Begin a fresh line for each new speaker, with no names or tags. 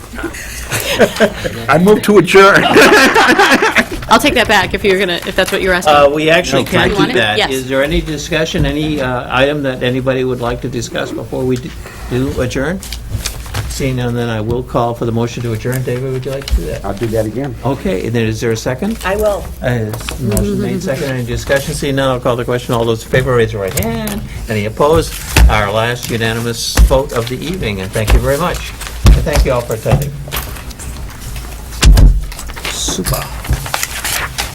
I move to adjourn.
I'll take that back if you're gonna, if that's what you're
Uh,
asking.
We actually
No,
can
You want
do
it?
that.
Yes.
Is there any discussion, any uh, item that anybody would like to discuss before we d- do adjourn? Seeing none, then I will call for the motion to adjourn. David, would you like to do that?
I'll do that again.
Okay, and then is there a second?
I will.
Uh, is Motion made, second, any discussion? Seeing none, I'll call the question. All those in favor, raise your right hand. Any opposed? Our last unanimous vote of the evening, and thank you very much. And thank you all for attending. Super.